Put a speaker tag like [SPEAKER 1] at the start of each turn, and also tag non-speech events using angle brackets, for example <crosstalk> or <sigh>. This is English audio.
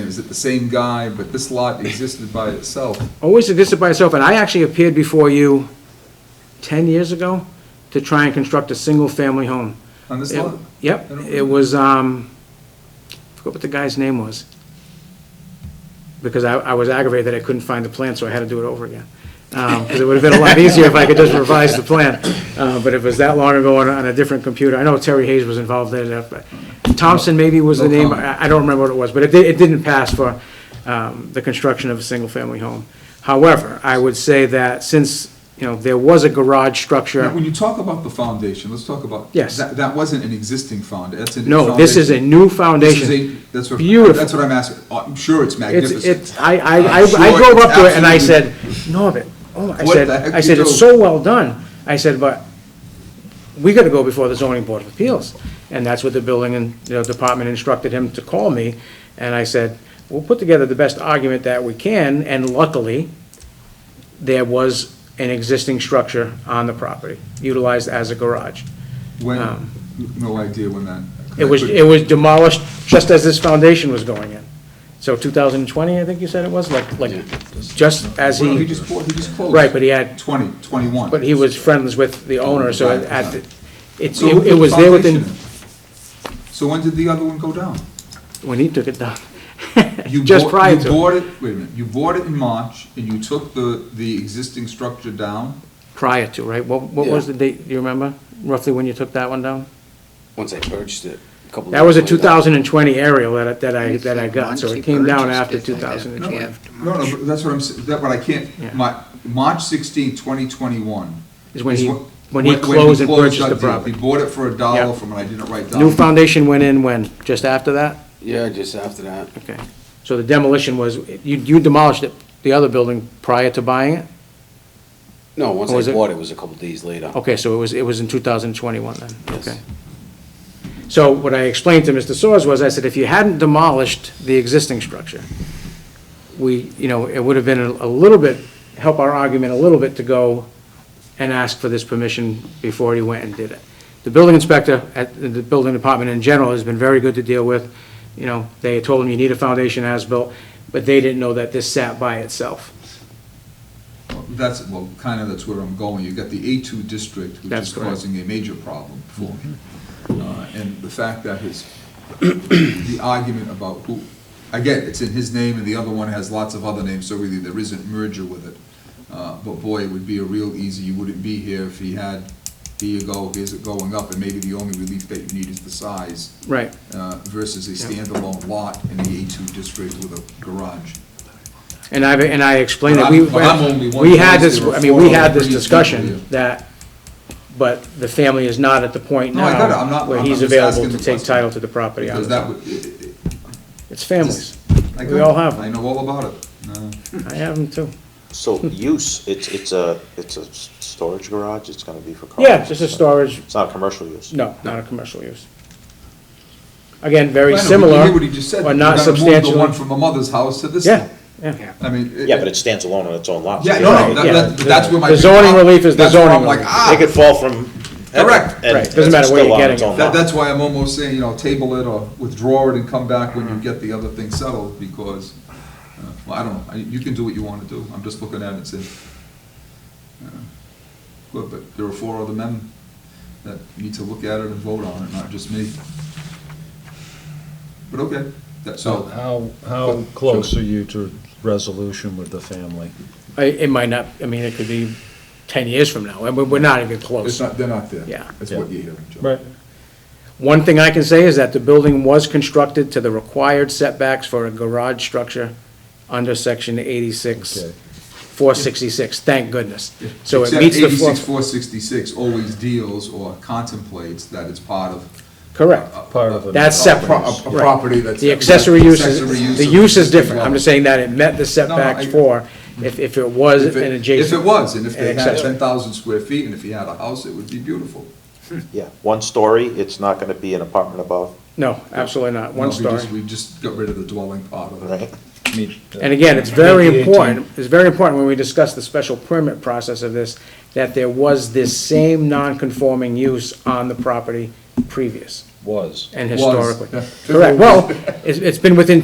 [SPEAKER 1] Is it the same guy, but this lot existed by itself?
[SPEAKER 2] always existed by itself, and I actually appeared before you 10 years ago to try and construct a single-family home.
[SPEAKER 1] On this
[SPEAKER 2] It-
[SPEAKER 1] lot?
[SPEAKER 2] Yep,
[SPEAKER 1] I don't
[SPEAKER 2] it was, um, I forgot what the guy's name was. Because I, I was aggravated that I couldn't find the plan, so I had to do it over again. Because it would have
[SPEAKER 1] <laughs>
[SPEAKER 2] been a lot easier if I could just revise the plan. Uh, But it was that long ago on, a- on a different computer. I know Terry Hayes was involved in it, but Thompson maybe was the
[SPEAKER 1] No
[SPEAKER 2] name,
[SPEAKER 1] comment.
[SPEAKER 2] I, I don't remember what it was, but it, di- it didn't pass for, um, the construction of a single-family home. However, I would say that since, you know, there was a garage structure.
[SPEAKER 1] Now, When you talk about the foundation, let's talk about.
[SPEAKER 2] Yes.
[SPEAKER 1] That, that wasn't an existing found, that's a.
[SPEAKER 2] No, this is a new
[SPEAKER 1] This is
[SPEAKER 2] foundation.
[SPEAKER 1] a, that's what,
[SPEAKER 2] Beautiful.
[SPEAKER 1] that's what I'm asking. Oh, I'm sure it's
[SPEAKER 2] It's,
[SPEAKER 1] magnificent.
[SPEAKER 2] it's, I, I, I
[SPEAKER 1] I'm Uh, sure
[SPEAKER 2] I drove
[SPEAKER 1] it's
[SPEAKER 2] up to it and I said,
[SPEAKER 1] absolutely-
[SPEAKER 2] Norbert, oh, my-" I
[SPEAKER 1] What
[SPEAKER 2] said,
[SPEAKER 1] the heck
[SPEAKER 2] I
[SPEAKER 1] you
[SPEAKER 2] said, it's
[SPEAKER 1] do?"
[SPEAKER 2] so well done. I said, but we gotta go before the zoning board of appeals. And that's what the building and, you know, department instructed him to call me. And I said, we'll put together the best argument that we can, and luckily, there was an existing structure on the property, utilized as a garage.
[SPEAKER 1] When, no idea when that.
[SPEAKER 2] um, It was, it was demolished just as this foundation was going in. So 2020, I think you said it was, like, like, just as
[SPEAKER 1] Well, he
[SPEAKER 2] he,
[SPEAKER 1] just, bought- he just closed.
[SPEAKER 2] Right, but he had-
[SPEAKER 1] Twenty, twenty-one.
[SPEAKER 2] but he was friends with the owner, so it- at, the- it's,
[SPEAKER 1] So who
[SPEAKER 2] it
[SPEAKER 1] put
[SPEAKER 2] it
[SPEAKER 1] the
[SPEAKER 2] was there within,
[SPEAKER 1] foundation in? So when did the other one go down?
[SPEAKER 2] when he took it down.
[SPEAKER 1] <laughs> You
[SPEAKER 2] Just
[SPEAKER 1] bought-
[SPEAKER 2] prior
[SPEAKER 1] You
[SPEAKER 2] to,
[SPEAKER 1] bought it, wait a minute, you bought it in March, and you took the, the existing structure down?
[SPEAKER 2] prior to, right? What, what was
[SPEAKER 3] Yeah.
[SPEAKER 2] the date, do you remember, roughly when you took that one down?
[SPEAKER 3] Once I purchased it, a couple.
[SPEAKER 2] That was a
[SPEAKER 3] years later.
[SPEAKER 2] 2020 aerial that, I- that I, that I got, so
[SPEAKER 4] Once he
[SPEAKER 2] it came down
[SPEAKER 4] purchased
[SPEAKER 2] after
[SPEAKER 4] it, they had to
[SPEAKER 2] 2020.
[SPEAKER 4] have to
[SPEAKER 1] No, no, but that's what I'm, s- that, what I
[SPEAKER 2] Yeah.
[SPEAKER 1] can't, my, March 16, 2021.
[SPEAKER 2] Is when he-
[SPEAKER 1] wh-
[SPEAKER 2] when he closed and purchased
[SPEAKER 1] that
[SPEAKER 2] the
[SPEAKER 1] deal.
[SPEAKER 2] property.
[SPEAKER 1] He bought it for a dollar
[SPEAKER 2] Yeah.
[SPEAKER 1] from, and I didn't write down.
[SPEAKER 2] New foundation went in when, just after that?
[SPEAKER 3] Yeah, just after that.
[SPEAKER 2] Okay, so the demolition was, you you demolished it, the other building prior to buying it?
[SPEAKER 3] No, once
[SPEAKER 2] Or Oh, was
[SPEAKER 3] I
[SPEAKER 2] it-
[SPEAKER 3] bought it, it was a couple days later.
[SPEAKER 2] Okay, so it was, it was in 2021 then?
[SPEAKER 3] Yes.
[SPEAKER 2] Okay. So what I explained to Mr. Soers was, I said, if you hadn't demolished the existing structure, we, you know, it would have been a a little bit, help our argument a little bit to go and ask for this permission before he went and did it. The building inspector at the- the building department in general has been very good to deal with. You know, they told him you need a foundation as-built, but they didn't know that this sat by itself.
[SPEAKER 1] That's, well, kind of that's where I'm going. You've got the A2 district, which
[SPEAKER 2] That's
[SPEAKER 1] is
[SPEAKER 2] correct. Mm-hmm.
[SPEAKER 1] causing a major problem for me. Uh, And the fact that his, <coughs> the argument about who, again, it's in his name and the other one has lots of other names, so really there isn't merger with it. Uh, But boy, it would be a real easy, you wouldn't be here if he had, here you go, here's it going up, and maybe the only relief that you need is the size
[SPEAKER 2] Right.
[SPEAKER 1] uh, versus a standalone lot in the A2 district with a garage.
[SPEAKER 2] And I, and I explained that
[SPEAKER 1] But
[SPEAKER 2] we,
[SPEAKER 1] I'm- but I'm only one
[SPEAKER 2] we had
[SPEAKER 1] place,
[SPEAKER 2] this,
[SPEAKER 1] there were
[SPEAKER 2] I mean, we
[SPEAKER 1] four
[SPEAKER 2] had this
[SPEAKER 1] other people
[SPEAKER 2] discussion
[SPEAKER 1] here.
[SPEAKER 2] that, but the family is not at the point
[SPEAKER 1] No, I got it. I'm
[SPEAKER 2] now
[SPEAKER 1] not-
[SPEAKER 2] where
[SPEAKER 1] I'm
[SPEAKER 2] he's
[SPEAKER 1] just
[SPEAKER 2] available
[SPEAKER 1] asking
[SPEAKER 2] to
[SPEAKER 1] the
[SPEAKER 2] take
[SPEAKER 1] question.
[SPEAKER 2] title to the property. on
[SPEAKER 1] Because
[SPEAKER 2] his
[SPEAKER 1] that
[SPEAKER 2] own.
[SPEAKER 1] would, it- it- it-
[SPEAKER 2] It's families.
[SPEAKER 1] I
[SPEAKER 2] We
[SPEAKER 1] got
[SPEAKER 2] all
[SPEAKER 1] it.
[SPEAKER 2] have
[SPEAKER 1] I
[SPEAKER 2] them.
[SPEAKER 1] know all about it. No.
[SPEAKER 2] I have them too.
[SPEAKER 5] So use, it's, it's a, it's a s- storage garage, it's gonna be for cars?
[SPEAKER 2] Yeah, just a storage,
[SPEAKER 5] It's not a commercial use?
[SPEAKER 2] no, not a commercial use. Again, very
[SPEAKER 1] Well, I know, but
[SPEAKER 2] similar,
[SPEAKER 1] You hear what he just said,
[SPEAKER 2] but
[SPEAKER 1] you're
[SPEAKER 2] not
[SPEAKER 1] gonna move the one
[SPEAKER 2] substantial.
[SPEAKER 1] from a mother's house to this
[SPEAKER 2] Yeah,
[SPEAKER 1] one.
[SPEAKER 2] yeah.
[SPEAKER 1] I mean. it-
[SPEAKER 5] Yeah, but it stands alone on its own lot. so
[SPEAKER 1] Yeah,
[SPEAKER 5] they
[SPEAKER 1] no, no,
[SPEAKER 5] don't-
[SPEAKER 2] Right,
[SPEAKER 1] that-
[SPEAKER 2] yeah.
[SPEAKER 1] that- that's where my.
[SPEAKER 2] The
[SPEAKER 1] big
[SPEAKER 2] zoning
[SPEAKER 1] problem-
[SPEAKER 2] relief is the
[SPEAKER 1] that's where
[SPEAKER 2] zoning
[SPEAKER 1] I'm like,
[SPEAKER 2] relief.
[SPEAKER 1] ah,
[SPEAKER 5] They could fall from heaven.
[SPEAKER 1] Correct.
[SPEAKER 5] and
[SPEAKER 2] Right, doesn't matter
[SPEAKER 5] it's
[SPEAKER 2] where
[SPEAKER 5] still
[SPEAKER 2] you're
[SPEAKER 5] on
[SPEAKER 2] getting
[SPEAKER 5] its
[SPEAKER 2] it.
[SPEAKER 5] own
[SPEAKER 1] that,
[SPEAKER 5] lot.
[SPEAKER 1] that's why I'm almost saying, you know, table it or withdraw it and come back when you get the other thing settled, because, uh, well, I don't know, I- you can do what you wanna do, I'm just looking at it and saying. uh, Good, but there are four other men that need to look at it and vote on it, not just me. But okay, that, so,
[SPEAKER 6] So how, how close are you to resolution with the family?
[SPEAKER 2] I- It might not, I mean, it could be ten years from now, and we're not even
[SPEAKER 1] it's
[SPEAKER 2] close.
[SPEAKER 1] not, they're not there.
[SPEAKER 2] Yeah.
[SPEAKER 1] That's what you're hearing, Joe.
[SPEAKER 2] One thing I can say is that the building was constructed to the required setbacks for a garage structure under section eighty-six,
[SPEAKER 6] Okay.
[SPEAKER 2] four sixty-six, thank goodness. So it
[SPEAKER 1] Except
[SPEAKER 2] meets the
[SPEAKER 1] eighty-six,
[SPEAKER 2] four,
[SPEAKER 1] four sixty-six always deals or contemplates that it's part of.
[SPEAKER 2] correct.
[SPEAKER 1] a-
[SPEAKER 6] Part of
[SPEAKER 1] a-
[SPEAKER 6] it.
[SPEAKER 2] That's
[SPEAKER 1] uh, a
[SPEAKER 2] separate.
[SPEAKER 1] pro- A a
[SPEAKER 2] Right.
[SPEAKER 1] property that's.
[SPEAKER 2] The accessory use
[SPEAKER 1] accessory
[SPEAKER 2] is, the
[SPEAKER 1] of
[SPEAKER 2] use is
[SPEAKER 1] existing
[SPEAKER 2] different, I'm
[SPEAKER 1] dwelling.
[SPEAKER 2] just saying that it met the setbacks
[SPEAKER 1] I-
[SPEAKER 2] for, if, if it was
[SPEAKER 1] If it-
[SPEAKER 2] an adjacent.
[SPEAKER 1] If it was, and if they
[SPEAKER 2] an
[SPEAKER 1] had
[SPEAKER 2] accessory.
[SPEAKER 1] ten thousand square feet, and if he had a house, it would be beautiful.
[SPEAKER 5] Yeah, one story, it's not gonna be an apartment above,
[SPEAKER 2] No, absolutely not, one
[SPEAKER 1] No, we just-
[SPEAKER 2] story.
[SPEAKER 1] We just got rid of the dwelling part of it.
[SPEAKER 5] right?
[SPEAKER 2] And again, it's very
[SPEAKER 6] Maybe 18.
[SPEAKER 2] important, it's very important when we discuss the special permit process of this, that there was this same non-conforming use on the property previous
[SPEAKER 6] Was.
[SPEAKER 2] and
[SPEAKER 1] Was.
[SPEAKER 2] historically.
[SPEAKER 1] Yeah.
[SPEAKER 2] Correct, well, it's, it's been within